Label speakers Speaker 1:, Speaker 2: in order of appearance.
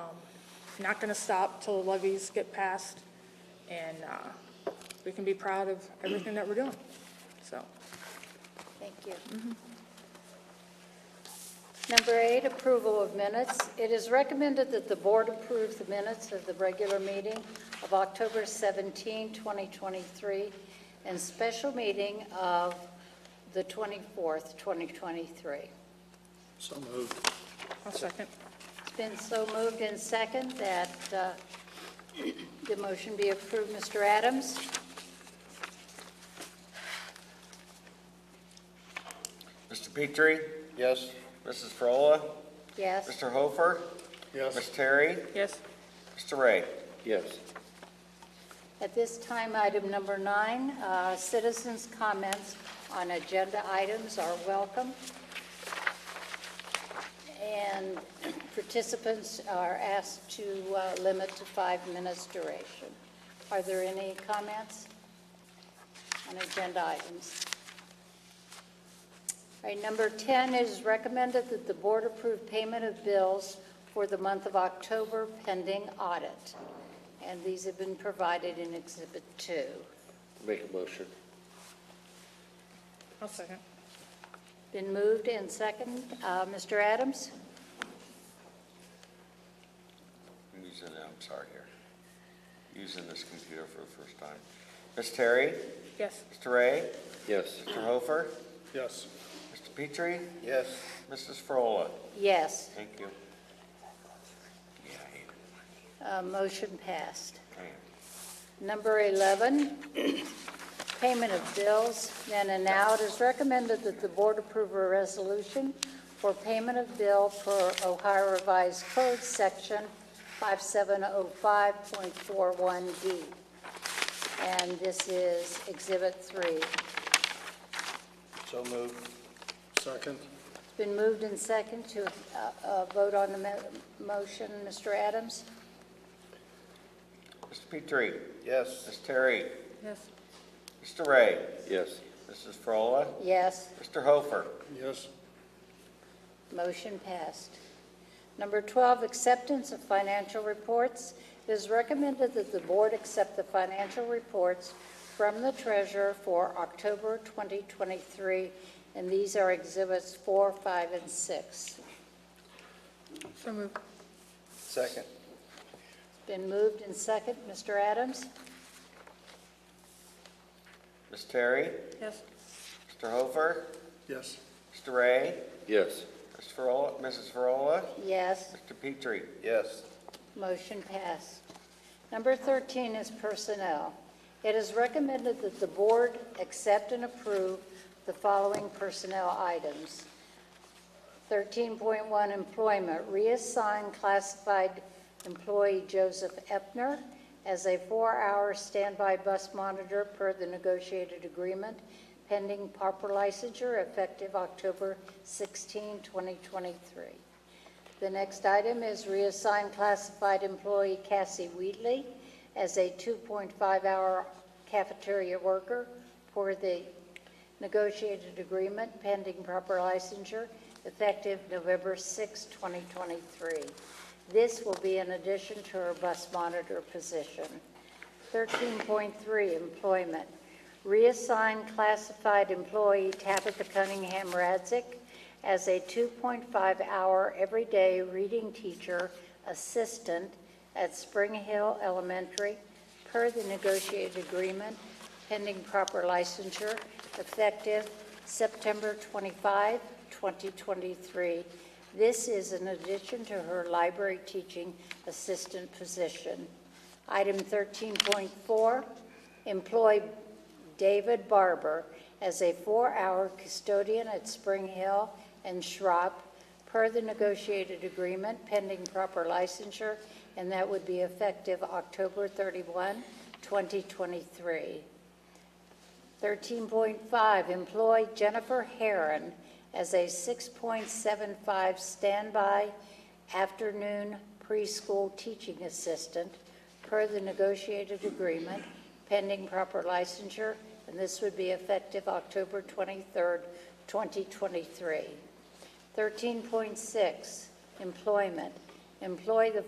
Speaker 1: Um, not going to stop till the levies get passed, and uh, we can be proud of everything that we're doing, so.
Speaker 2: Thank you. Number eight, approval of minutes. It is recommended that the board approve the minutes of the regular meeting of October 17, 2023, and special meeting of the 24th, 2023.
Speaker 3: So moved.
Speaker 1: I'll second.
Speaker 2: It's been so moved and second that uh, the motion be approved. Mr. Adams?
Speaker 4: Mr. Petrie,
Speaker 3: Yes.
Speaker 4: Mrs. Frola,
Speaker 2: Yes?
Speaker 4: Mr. Hofer, Ms. Terry,
Speaker 1: Yes,
Speaker 4: Mr. Ray.
Speaker 3: Yes.
Speaker 2: At this time, item number nine, uh, citizens' comments on agenda items are welcome. And participants are asked to uh, limit to five minutes duration. Are there any comments on agenda items? All right, number 10 is recommended that the board approve payment of bills for the month of October pending audit. And these have been provided in Exhibit 2.
Speaker 3: Make a motion.
Speaker 1: I'll second.
Speaker 2: Been moved and second. Uh, Mr. Adams?
Speaker 4: I'm using, I'm sorry here, using this computer for the first time. Ms. Terry,
Speaker 1: Yes,
Speaker 4: Mr. Ray,
Speaker 3: Yes.
Speaker 4: Mr. Hofer,
Speaker 3: Yes.
Speaker 4: Mr. Petrie,
Speaker 3: Yes.
Speaker 4: Mrs. Frola.
Speaker 2: Yes,
Speaker 4: Thank you. Yeah, I hate it.
Speaker 2: Uh, motion passed.
Speaker 4: Man.
Speaker 2: Number 11, payment of bills. Then and now, it is recommended that the board approve a resolution for payment of bill per Ohio Revised Code, Section 5705.41D. And this is Exhibit 3.
Speaker 3: So moved. Second.
Speaker 2: It's been moved and second to uh, uh, vote on the mo- motion. Mr. Adams?
Speaker 4: Mr. Petrie,
Speaker 3: Yes.
Speaker 4: Ms. Terry,
Speaker 1: yes,
Speaker 4: Mr. Ray,
Speaker 3: Yes.
Speaker 4: Mrs. Frola,
Speaker 2: Yes,
Speaker 4: Mr. Hofer.
Speaker 3: Yes.
Speaker 2: motion passed. Number 12, acceptance of financial reports. It is recommended that the board accept the financial reports from the treasurer for October 2023, and these are exhibits 4, 5, and 6.
Speaker 1: so moved.
Speaker 3: Second.
Speaker 2: It's been moved and second. Mr. Adams?
Speaker 4: Ms. Terry,
Speaker 1: Yes,
Speaker 4: Mr. Hofer,
Speaker 3: Yes.
Speaker 4: Mr. Ray,
Speaker 3: Yes.
Speaker 4: Mr. Frola, Mrs. Frola,
Speaker 2: Yes.
Speaker 4: Mr. Petrie,
Speaker 3: Yes.
Speaker 2: Motion passed. Number 13 is personnel. It is recommended that the board accept and approve the following personnel items. 13.1 employment, reassign classified employee Joseph Epner as a four-hour standby bus monitor per the negotiated agreement pending proper licensure effective October 16, 2023. The next item is reassign classified employee Cassie Wheatley as a 2.5-hour cafeteria worker for the negotiated agreement pending proper licensure effective November 6, 2023. This will be in addition to her bus monitor position. 13.3, employment. Reassign classified employee Tabitha Cunningham Radzik as a 2.5-hour everyday reading teacher assistant at Spring Hill Elementary per the negotiated agreement pending proper licensure effective September 25, 2023. This is in addition to her library teaching assistant position. Item 13.4, employ David Barber as a four-hour custodian at Spring Hill and Schropp per the negotiated agreement pending proper licensure, and that would be effective October 31, 2023. 13.5, employ Jennifer Heron as a 6.75 standby afternoon preschool teaching assistant per the negotiated agreement pending proper licensure, and this would be effective October 23rd, 2023. 13.6, employment. Employ the